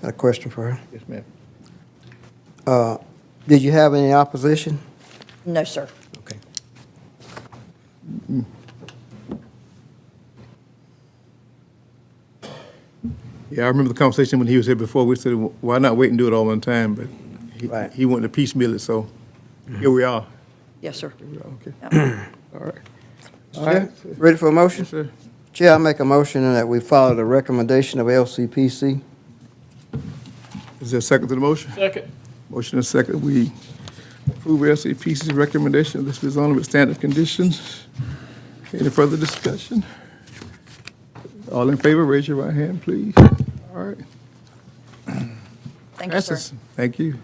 Got a question for her. Yes, ma'am. Did you have any opposition? No, sir. Okay. Mm. Yeah, I remember the conversation when he was here before. We said, why not wait and do it all one time? But he- Right. he wanted to piecemeal it, so here we are. Yes, sir. Here we are, Okay. Yeah. All right. All Okay, right. ready for a motion? Yes, sir. Chair, I make a motion that we follow the recommendation of LCPC. Is there a second to the motion? Second. Motion and second, we approve LCPC's recommendation of this rezoning with standard conditions. Any further discussion? All in favor, raise your right hand, please. All right. Thank you, sir. Passes. Thank you.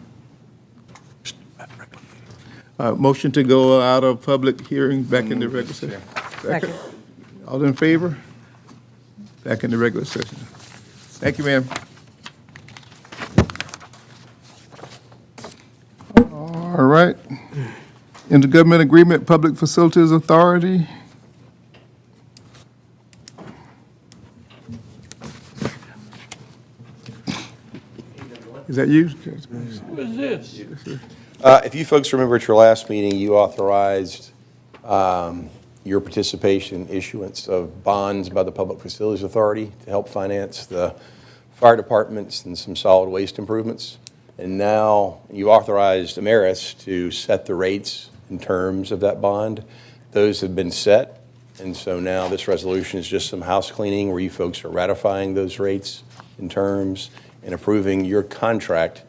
Uh, Motion to go out of public hearing, back into regular session. Second. All in favor? Back into regular session. Thank you, ma'am. All right. Intergovernment Agreement, Public Facilities Authority. Is that you? Who is this? Uh, If you folks remember at your last meeting, you authorized um, your participation in issuance of bonds by the Public Facilities Authority to help finance the fire departments and some solid waste improvements. And now you authorized Ameris to set the rates and terms of that bond. Those have been set, and so now this resolution is just some house cleaning where you folks are ratifying those rates and terms and approving your contract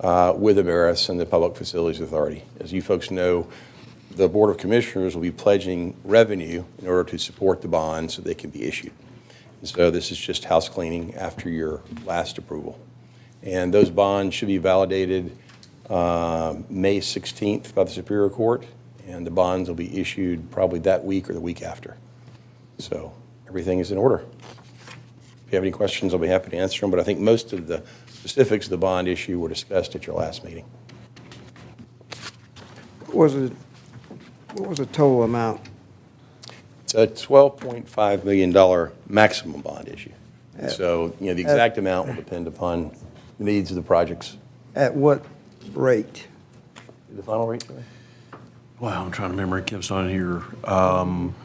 uh, with Ameris and the Public Facilities Authority. As you folks know, the Board of Commissioners will be pledging revenue in order to support the bonds so they can be issued. And so this is just house cleaning after your last approval. And those bonds should be validated um, May 16th by the Superior Court, and the bonds will be issued probably that week or the week after. So everything is in order. If you have any questions, I'll be happy to answer them, but I think most of the specifics of the bond issue were discussed at your last meeting. What was it, what was the total amount? It's a $12.5 million maximum bond issue. And So, you know, the exact amount will depend upon the needs of the projects. At what rate? The final rate, Joey? Wow, I'm trying to remember. It keeps on here. Um,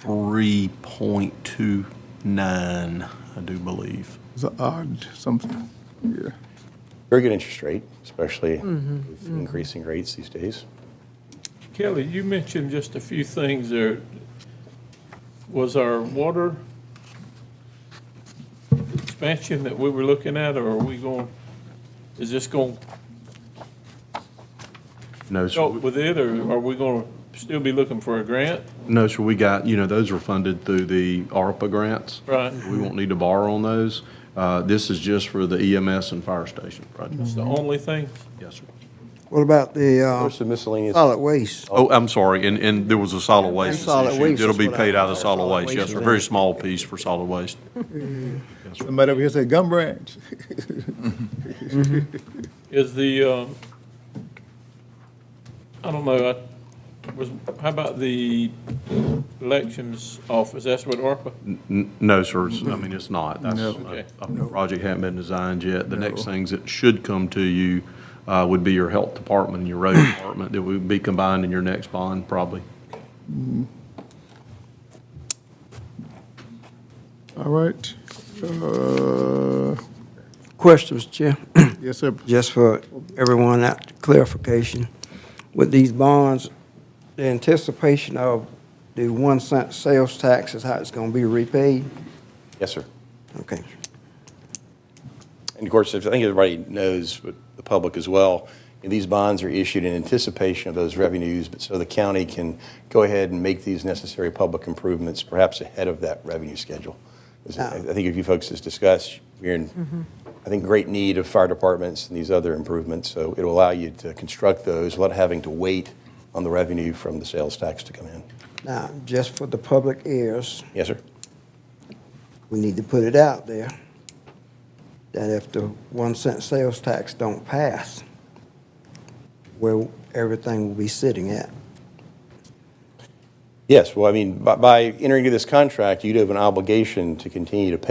three point two nine, I do believe. It's an odd something, yeah. Very good interest rate, especially with increasing rates these days. Kelly, you mentioned just a few things there. Was our water expansion that we were looking at, or are we going, is this going to No, sir. Oh. help with it, or are we going to still be looking for a grant? No, sir. We got, you know, those were funded through the ARPA grants. Right. We won't need to borrow on those. Uh, this is just for the EMS and fire station projects. It's Mm-hmm. the only thing? Yes, sir. What about the uh, There's some miscellaneous. solid waste? Oh, I'm sorry. And, and there was a solid waste solid issue. waste It'll is be what I- paid out of solid solid waste. Yes, waste. sir. Very small piece for solid waste. Somebody over here said Gum Branch. Is the, um, I don't know, I was, how about the elections office? That's what ARPA? N- No, sir, it's- I mean, it's not. That's, Okay. a a project hadn't been designed yet. The next things that should come to you uh, would be your health department and your road department that would be combined in your next bond, probably. All right. Uh, Questions, Chair? Yes, sir. Just for everyone, that clarification. With these bonds, the anticipation of the one cent sales tax is how it's gonna be repaid? Yes, sir. Okay. And of course, I think everybody knows, but the public as well, these bonds are issued in anticipation of those revenues, but so the county can go ahead and make these necessary public improvements, perhaps ahead of that revenue schedule. 'Cause I I think if you folks has discussed, we're in, I think, great need of fire departments and these other improvements, so it'll allow you to construct those without having to wait on the revenue from the sales tax to come in. Now, just for the public ears, Yes, sir? we need to put it out there that if the one cent sales tax don't pass, where everything will be sitting at. Yes, well, I mean, by- by entering into this contract, you'd have an obligation to continue to pay